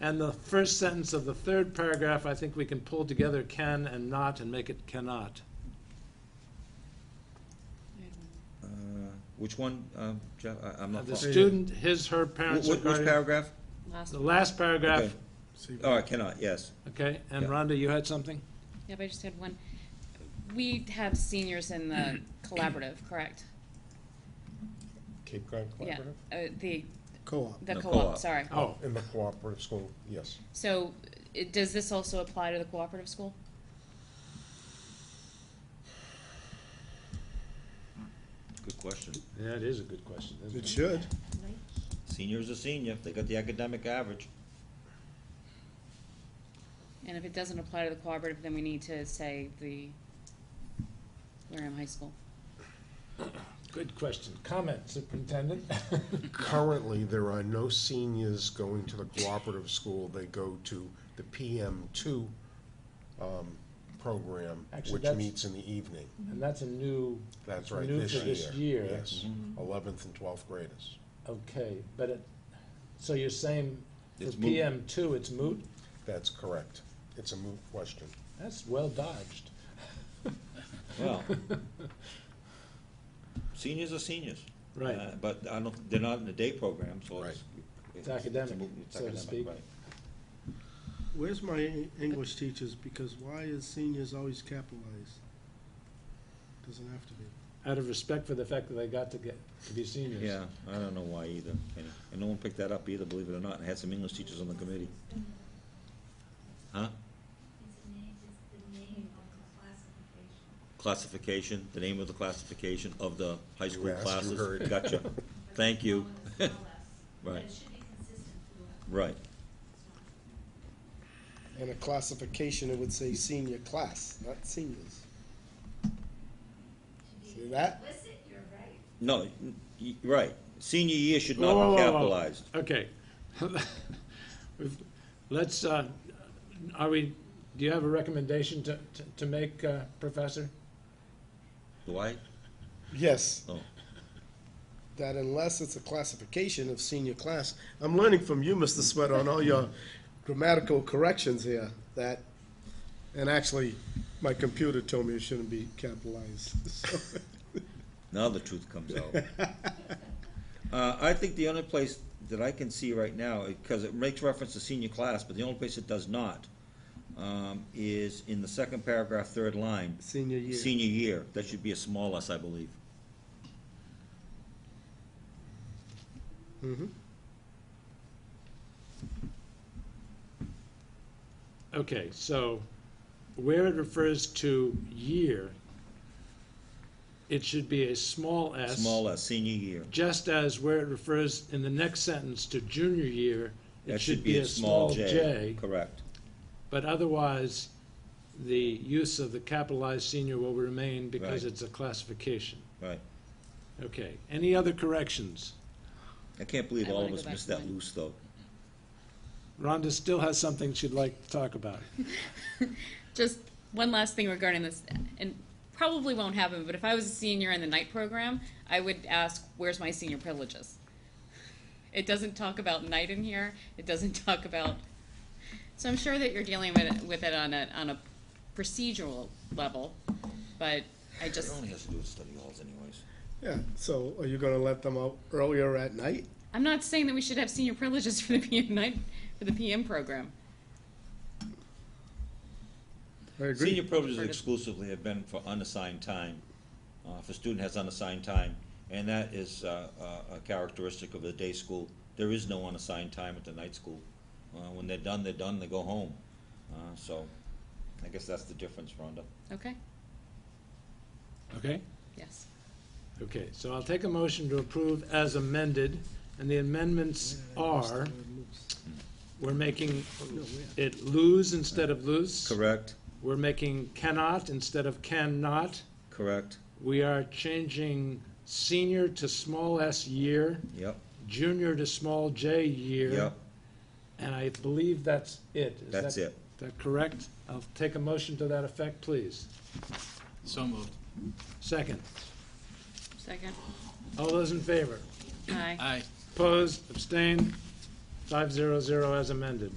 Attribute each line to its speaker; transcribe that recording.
Speaker 1: And the first sentence of the third paragraph, I think we can pull together can and not and make it cannot.
Speaker 2: Uh, Which one, um, Jeff? I- I'm not.
Speaker 1: The
Speaker 2: fol-
Speaker 1: student, his, her, parents,
Speaker 2: Wh-
Speaker 1: or
Speaker 2: wh- Which
Speaker 1: guardian.
Speaker 2: paragraph?
Speaker 1: The last
Speaker 2: Okay.
Speaker 1: paragraph,
Speaker 2: Oh, I cannot, yes.
Speaker 1: okay, and
Speaker 2: Yeah.
Speaker 1: Rhonda, you had something?
Speaker 3: Yep, I just had one. We have seniors in the collaborative, correct?
Speaker 4: Cape Cod
Speaker 3: Yeah,
Speaker 4: Collaborative?
Speaker 3: uh, the,
Speaker 4: Co-op.
Speaker 3: the
Speaker 2: The
Speaker 3: co-op,
Speaker 2: co-op.
Speaker 3: sorry.
Speaker 1: Oh,
Speaker 4: In the cooperative school, yes.
Speaker 3: So, it, does this also apply to the cooperative school?
Speaker 2: Good question.
Speaker 1: that is a good question, isn't
Speaker 4: It
Speaker 1: it?
Speaker 4: should.
Speaker 2: Senior's a senior, they got the academic average.
Speaker 3: And if it doesn't apply to the cooperative, then we need to say the Wareham High School.
Speaker 1: Good question. Comment, superintendent?
Speaker 4: Currently, there are no seniors going to the cooperative school. They go to the PM two, um, program,
Speaker 1: Actually,
Speaker 4: which
Speaker 1: that's-
Speaker 4: meets in the evening.
Speaker 1: And that's a new,
Speaker 4: That's right,
Speaker 1: New
Speaker 4: this
Speaker 1: for
Speaker 4: year.
Speaker 1: this year. Mm-hmm.
Speaker 4: Yes, eleventh and twelfth graders.
Speaker 1: okay, but it, so you're saying for
Speaker 2: It's moot.
Speaker 1: PM two, it's moot?
Speaker 4: That's correct. It's a moot question.
Speaker 1: That's well dodged.
Speaker 2: Well, seniors are seniors.
Speaker 1: Right.
Speaker 2: Uh, But I don't, they're not in the day program, so it's.
Speaker 1: It's academic,
Speaker 2: mo- it's
Speaker 1: so to
Speaker 2: academic,
Speaker 1: speak.
Speaker 2: right.
Speaker 5: Where's my Eng- English teachers? Because why is seniors always capitalized? Doesn't have to be.
Speaker 1: Out of respect for the fact that they got to get, to be seniors.
Speaker 2: Yeah, I don't know why either, Kenny. and no one picked that up either, believe it or not, and had some English teachers on the committee. Huh?
Speaker 6: It's the name, it's the name of the classification.
Speaker 2: Classification, the name of the classification of the high school
Speaker 4: asked, you
Speaker 2: classes.
Speaker 4: heard.
Speaker 2: Gotcha, thank you,
Speaker 6: But it's all us. But
Speaker 2: Right.
Speaker 6: It should be consistent throughout.
Speaker 2: right.
Speaker 7: And a classification, it would say senior class, not seniors. See that?
Speaker 6: Listen, you're right.
Speaker 2: No, y- right, senior year should
Speaker 1: Whoa,
Speaker 2: not
Speaker 1: whoa,
Speaker 2: be
Speaker 1: whoa, whoa.
Speaker 2: capitalized.
Speaker 1: Okay. We've- Let's, uh, are we, do you have a recommendation to, to- to make, uh, Professor?
Speaker 2: Do I?
Speaker 7: Yes,
Speaker 2: No.
Speaker 7: that unless it's a classification of senior class. I'm learning from you, Mr. Sweater, on all your grammatical corrections here, that, and actually, my computer told me it shouldn't be capitalized. So,
Speaker 2: Now the truth comes out. Uh, I think the only place that I can see right now, because it makes reference to senior class, but the only place it does not, um, is in the second paragraph, third line.
Speaker 7: Senior year.
Speaker 2: Senior year, that should be a small s, I believe.
Speaker 7: Mhm.
Speaker 1: Okay, so where it refers to year, it should be a small s.
Speaker 2: Small s, senior year.
Speaker 1: Just as where it refers in the next sentence to junior year, it
Speaker 2: That
Speaker 1: should be a small j.
Speaker 2: Correct.
Speaker 1: But otherwise, the use of the capitalized senior will remain because
Speaker 2: Right.
Speaker 1: it's a classification.
Speaker 2: Right.
Speaker 1: Okay, any other corrections?
Speaker 2: I can't believe
Speaker 3: I
Speaker 2: all of
Speaker 3: wanna go
Speaker 2: us
Speaker 3: back
Speaker 2: missed
Speaker 3: to
Speaker 2: that
Speaker 3: mine.
Speaker 2: loose, though.
Speaker 1: Rhonda still has something she'd like to talk about.
Speaker 3: Just one last thing regarding this, and probably won't happen, but if I was a senior in the night program, I would ask, where's my senior privileges? It doesn't talk about night in here, it doesn't talk about, so I'm sure that you're dealing with it, with it on a, on a procedural level, but I
Speaker 2: It
Speaker 3: just,
Speaker 2: only has to do with study halls anyways.
Speaker 7: Yeah, so are you gonna let them out earlier at night?
Speaker 3: I'm not saying that we should have senior privileges for the PM night, for the PM program.
Speaker 7: I agree.
Speaker 2: Senior privileges
Speaker 3: Heard it.
Speaker 2: exclusively have been for unassigned time, uh, if a student has unassigned time, and that is uh, a a characteristic of the day school. There is no unassigned time at the night school. Uh, When they're done, they're done, they go home. Uh, So I guess that's the difference, Rhonda.
Speaker 3: Okay,
Speaker 1: Okay?
Speaker 3: yes.
Speaker 1: Okay, so I'll take a motion to approve as amended, and the amendments are, we're making it lose instead of loose.
Speaker 2: Correct,
Speaker 1: We're making cannot instead of cannot.
Speaker 2: correct,
Speaker 1: We are changing senior to small s year,
Speaker 2: yep,
Speaker 1: junior to small j year.
Speaker 2: yep,
Speaker 1: And I believe that's it. Is
Speaker 2: that's
Speaker 1: that-
Speaker 2: it.
Speaker 1: Is that correct? I'll take a motion to that effect, please.
Speaker 8: So moved.
Speaker 1: Second.
Speaker 3: Second,
Speaker 1: All those in favor?
Speaker 3: aye.
Speaker 8: Aye.
Speaker 1: Opposed, abstained, five zero zero as amended.